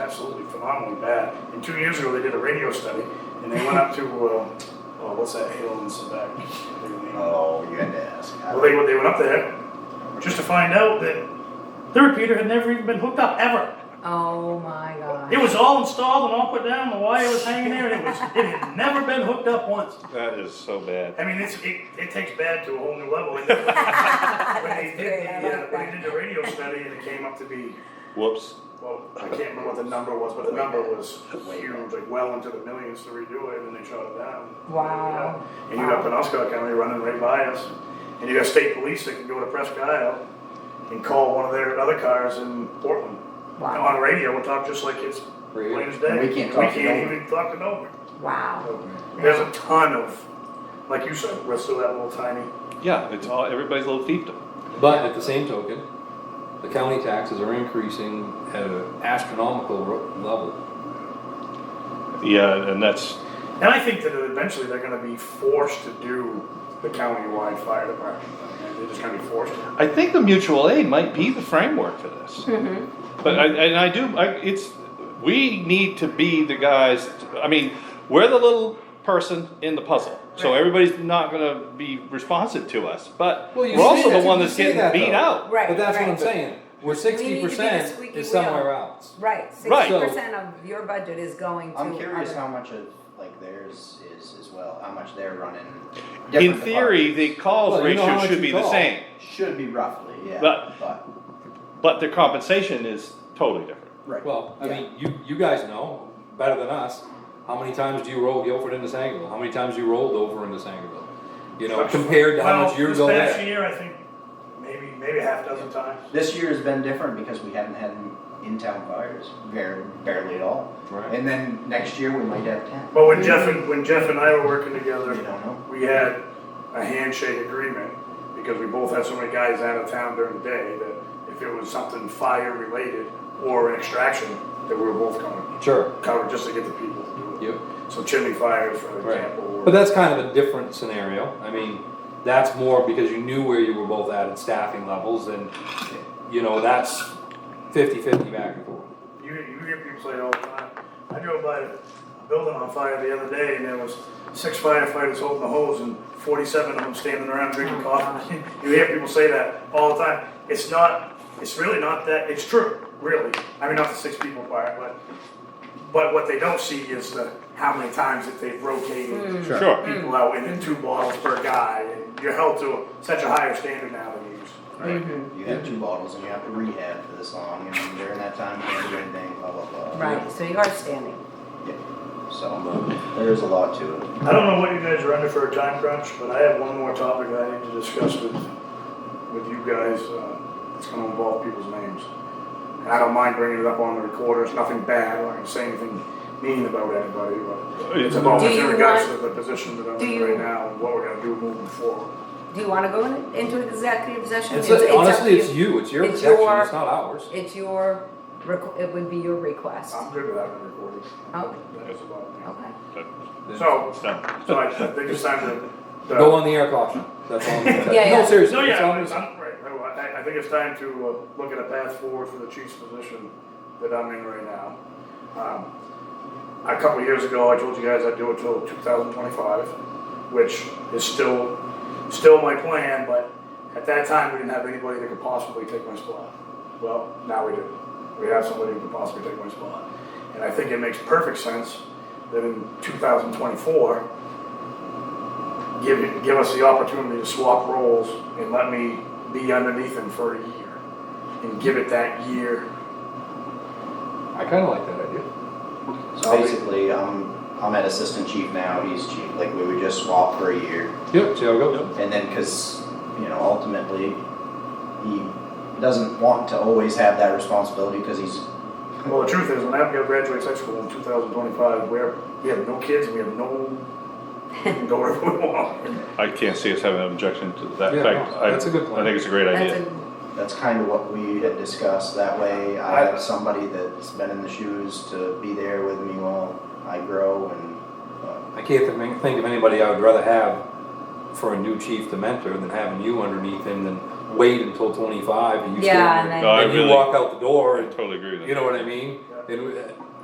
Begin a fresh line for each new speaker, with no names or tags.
absolutely phenomenally bad. And two years ago, they did a radio study, and they went up to, uh, oh, what's that hill in Quebec?
Oh, you had to ask. I
Well, they, they went up there just to find out that the repeater had never even been hooked up, ever.
Oh my god.
It was all installed and all put down, the wire was hanging there, and it was, it had never been hooked up once.
That is so bad.
I mean, it's, it, it takes bad to a whole new level. And then when they did
That's great,
the,
I
uh,
like
when they did
that.
the radio study, and it came up to be,
Whoops.
well, I can't remember what the number was, but the number was huge, like well into the millions to redo it, and they shut it down.
Wow.
And you got Penobscot County running right by us, and you got state police that can go to Presque Isle and call one of their other cars in Portland.
Wow.
On radio, we'll talk just like it's
Radio.
plain as day.
We can't talk to
We can't
Dover.
even talk to Dover.
Wow.
There's a ton of, like you said, we're still that little tiny
Yeah, it's all, everybody's a little fiefdom.
But at the same token, the county taxes are increasing at an astronomical ro- level.
Yeah, and that's,
And I think that eventually they're gonna be forced to do the county-wide fire department. They're just gonna be forced to.
I think the mutual aid might be the framework for this.
Mm-hmm.
But I, and I do, I, it's, we need to be the guys, I mean, we're the little person in the puzzle. So
Right.
everybody's not gonna be responsive to us, but
Well, you
we're also
say that-
the one
you
that's
say
getting
that,
beat
though.
out.
Right.
But that's what I'm
right.
saying, we're
We
squeaky
need to be the
percent
squeaky
is somewhere
wheel.
else.
Right.
Right.
Sixty percent of your budget is going to.
I'm curious
other-
how much of like theirs is as well. How much they're running.
In
different
theory, the calls
Well, you know how
ratio
much
should
you
be the
call.
same,
departments. should be roughly, yeah.
But- but their compensation is totally different.
right.
Well, I
Yeah.
mean, you, you guys know better than us, how many times do you roll Guilford into Sangerville? How many times you rolled over into Sangerville? You know, compared to how
Well,
much you're going
This past
there.
year, I think, maybe, maybe a half dozen times.
This year has been different because we haven't had in-town fires, very, barely at all.
Right.
And then next year we might have ten.
But when Jeff and, when Jeff and I were working together,
You don't know.
we had a handshake agreement, because we both had so many guys out of town during the day, that if it was something fire-related or an extraction, that we were both coming,
Sure,
covered just to get the people to do it.
you,
So chimney fires, for
right.
example. were-
But that's kind of a different scenario. I mean, that's more because you knew where you were both at in staffing levels and, you know, that's fifty-fifty back and forth.
You, you hear people say all the time, I drove by a building on fire the other day and there was six firefighters holding the hose and forty-seven of them standing around drinking coffee. You hear people say that all the time. It's not, it's really not that, it's true, really. I mean, not the six people part, but, but what they don't see is the, how many times that they've rotated
Sure.
Hmm.
Mm-hmm.
Sure.
people out and then two bottles per guy. and You're held to such a higher standard now than you used. to.
Right. You have two bottles and you have to rehab for this long, and then during that time you can't do anything, blah blah blah.
Right. So you are standing.
Yeah. So there is a lot to it.
I don't know what you guys are under for a time crunch, but I have one more topic that I need to discuss with, with you guys. uh, It's gonna involve people's names. And I don't mind bringing it up on the recorder, it's nothing bad, I'm not gonna say anything mean about anybody, but it's about
Do
in
you
regards to
want-
the position that I'm
do
in
you-
right now and what we're gonna do moving forward.
Do you want to go in- into executive session?
It's,
up
honestly,
to
it's you, it's your
It's
protection,
your-
it's not ours.
It's your. requ- It would be your request.
Uh-huh.
I'm good with having it recorded.
Oh.
That's about it.
Okay.
So,
It's done.
so I I think it's time to. to-
Go on the air caution, that's all. I'm gonna tell you.
Yeah, yeah.
No, seriously,
No,
it's
yeah,
on
I'm,
us.
I'm- right, no, I, I think it's time to uh, look at a path forward for the chief's position that I'm in right now. Um, A couple of years ago, I told you guys I'd do it till two thousand twenty-five, which is still, still my plan, but at that time, we didn't have anybody that could possibly take my spot. Well, now we do. We have somebody who could possibly take my spot. And I think it makes perfect sense that in two thousand twenty-four, give, give us the opportunity to swap roles and let me be underneath him for a year and give it that year.
I kinda like that idea.
So basically, I'm I'm at assistant chief now. He's chief. Like we would just swap for a year,
Yep, see how it goes.
and then because you know ultimately he doesn't want to always have that responsibility because he's
Well, the truth is, when Abigail graduates high school in 2025, we're, we have no kids and we have no, we can go wherever we want.
I can't see us having an objection to that. In
Yeah,
fact,
no,
I, I
that's a good plan.
think it's a great
That's
idea.
a.
that's kind of what we had discussed. That way, I have somebody that's been in the shoes to be there with me while I grow and. uh,
I can't think think of anybody I would rather have for a new chief to mentor than having you underneath him than wait until twenty-five and you.
Yeah,
still-
and then-
No, I
And you
really-
walk out the door
I
and,
totally agree with that.
you know what I mean?
Yeah.
And uh,